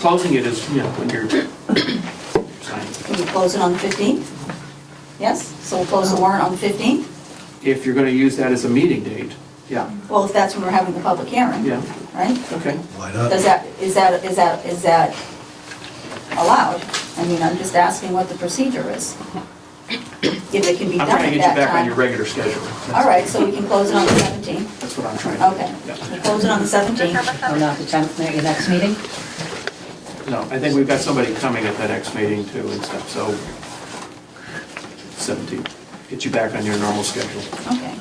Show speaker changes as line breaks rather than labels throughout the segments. Closing it is, yeah, when you're signing.
Can you close it on the 15th? Yes, so we'll close the warrant on the 15th?
If you're going to use that as a meeting date, yeah,
Well, if that's when we're having the public hearing,
Yeah.
right?
okay.
Why
Does
not?
that, is that, is that, is that allowed? I mean, I'm just asking what the procedure is. If it can be
I'm
done at that time.
trying to get you back on your regular schedule.
All right, so we can close it on the 17th?
That's what I'm trying to
Okay,
do. Yeah.
we'll close it on the 17th.
Oh, not the 10th, not your next meeting?
No, I think we've got somebody coming at the next meeting too and stuff, so 17, get you back on your normal schedule.
Okay.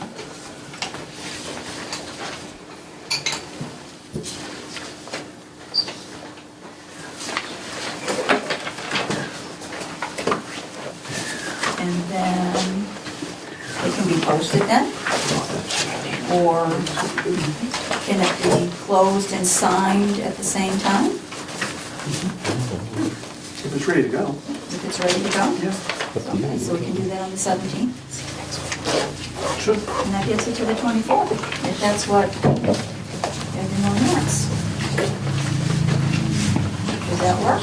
And then it can be posted then? Or can it be closed and signed at the same time
If it's ready to go.
if it's ready to go? Okay, so we can do that on the 17th?
Sure.
And that gets it to the 24th, if that's what everyone wants. Does that work?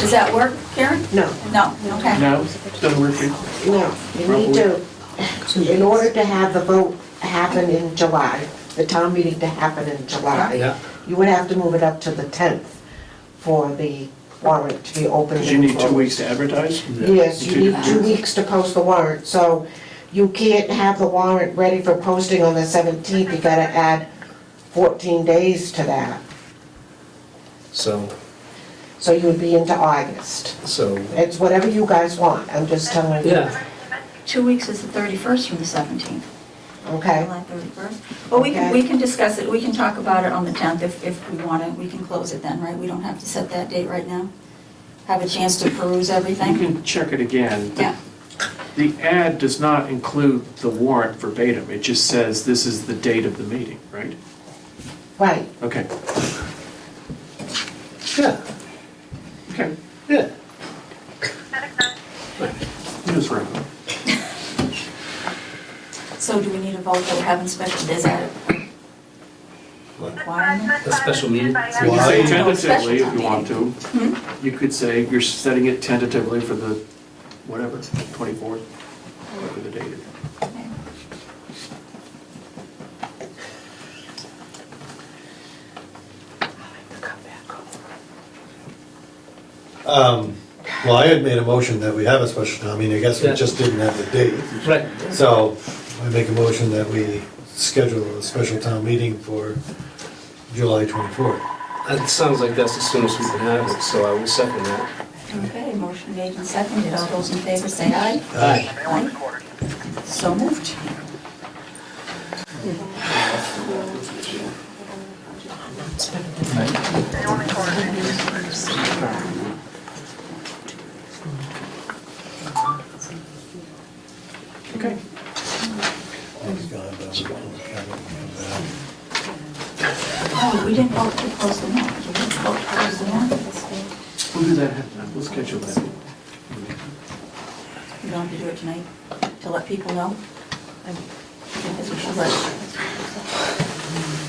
Does that work, Karen?
No,
No, okay.
No, doesn't work for you?
no, you need to, in order to have the vote happen in July, the town meeting to happen in
Yeah.
July, you would have to move it up to the 10th for the warrant to be opened.
Because you need two
and
weeks to advertise?
closed. Yes, you need two weeks to post the warrant, so you can't have the warrant ready for posting on the 17th, you gotta add 14 days to that.
So,
So you would be into August.
so,
It's whatever you guys want, I'm just telling you.
yeah,
Two weeks is the 31st from the 17th,
Okay?
July 31st. Well, we can, we can discuss it, we can talk about it on the 10th if, if we want to, we can close it then, right? We don't have to set that date right now? Have a chance to peruse
You
everything?
can check it again.
Yeah,
The ad does not include the warrant verbatim, it just says this is the date of the meeting, right?
Right.
Okay,
yeah,
okay.
yeah.
Yes, right.
so do we need a vote that we're having special, is that requirement?
A special meeting?
Why?
Say
Well,
tentatively if
special
you want to. You could say you're setting it tentatively for the, whatever, 24th, whatever the date is.
Hmm?
Um, Well, I had made a motion that we have a special town meeting, I guess we
Yeah.
just didn't have the date.
Right.
So I make a motion that we schedule a special town meeting for July 24th.
It sounds like that's the soonest we can have it, so I will second that.
Okay, motion made and seconded. All those in favor say aye.
Aye.
Aye. So moved.
Okay.
Oh, we didn't vote to close the warrant. We didn't vote to close the warrant.
We'll do that, we'll schedule that.
We don't have to do it tonight to let people know. I think that's what she said.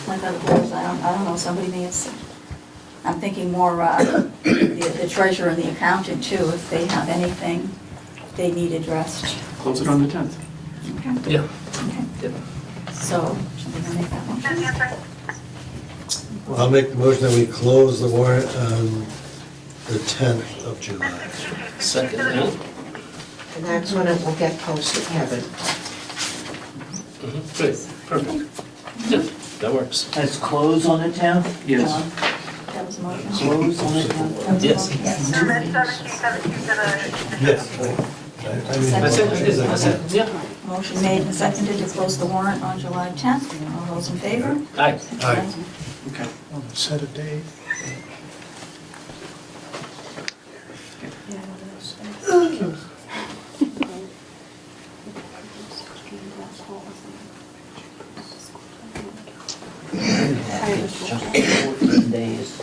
Like other boards, I don't, I don't know, somebody may have said. I'm thinking more, uh, the the treasurer and the accountant too, if they have anything they need addressed.
Close it on the 10th.
Okay.
Yeah.
Okay.
Yeah.
So, should we make that motion?
I'll make the motion that we close the warrant on the 10th of July.
Second that.
And that's when it will get posted, Kevin.
Great, perfect. Mm-hmm. Yeah, that works.
Let's close on the 10th?
Yes.
John, That was a motion.
Close on the 10th?
That was a
Yes.
motion, Yes.
Yes.
That's it, that's it, yeah.
Motion made and seconded to close the warrant on July 10th. All those in favor?
Aye.
Aye.
Okay.
Set a date.
Just 14 days.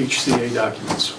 HCA documents.